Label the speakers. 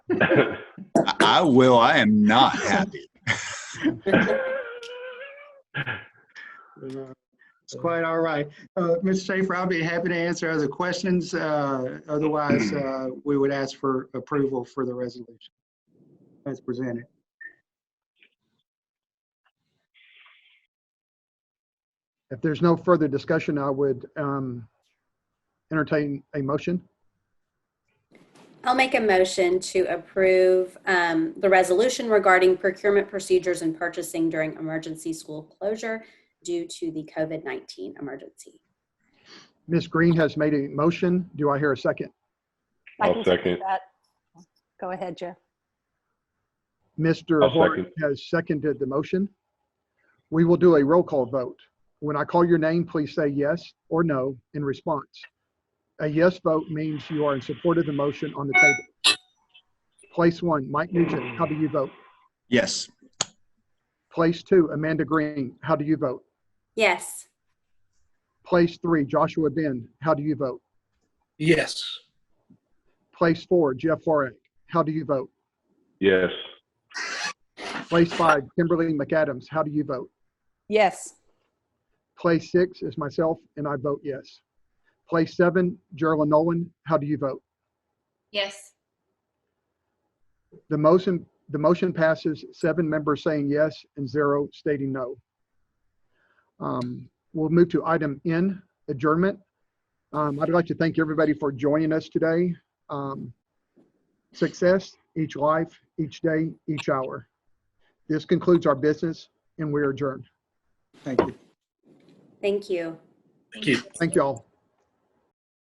Speaker 1: I- I will. I am not happy.
Speaker 2: It's quite all right. Uh, Mr. Schaefer, I'll be happy to answer other questions. Uh, Otherwise, uh, we would ask for approval for the resolution as presented.
Speaker 3: If there's no further discussion, I would um, entertain a motion.
Speaker 4: I'll make a motion to approve um, the resolution regarding procurement procedures and purchasing during emergency school closure due to the COVID-19 emergency.
Speaker 3: Ms. Green has made a motion. Do I hear a second?
Speaker 5: I
Speaker 6: I'll
Speaker 5: can second
Speaker 6: second.
Speaker 5: that. Go ahead, Jeff.
Speaker 3: Mr.
Speaker 6: I'll
Speaker 3: Horn
Speaker 6: second.
Speaker 3: has seconded the motion. We will do a roll call vote. When I call your name, please say yes or no in response. A yes vote means you are in support of the motion on the table. Place one, Mike Nugent, how do you vote?
Speaker 1: Yes.
Speaker 3: Place two, Amanda Green, how do you vote?
Speaker 4: Yes.
Speaker 3: Place three, Joshua Ben, how do you vote?
Speaker 7: Yes.
Speaker 3: Place four, Jeff Horak, how do you vote?
Speaker 6: Yes.
Speaker 3: Place five, Kimberly McAdams, how do you vote?
Speaker 5: Yes.
Speaker 3: Place six is myself, and I vote yes. Place seven, Gerald Nolan, how do you vote?
Speaker 4: Yes.
Speaker 3: The motion, the motion passes, seven members saying yes and zero stating no. Um, We'll move to item N, adjournment. Um, I'd like to thank everybody for joining us today. Um, Success, each life, each day, each hour. This concludes our business, and we are adjourned.
Speaker 2: Thank you.
Speaker 4: Thank you.
Speaker 7: Thank you.
Speaker 3: Thank y'all.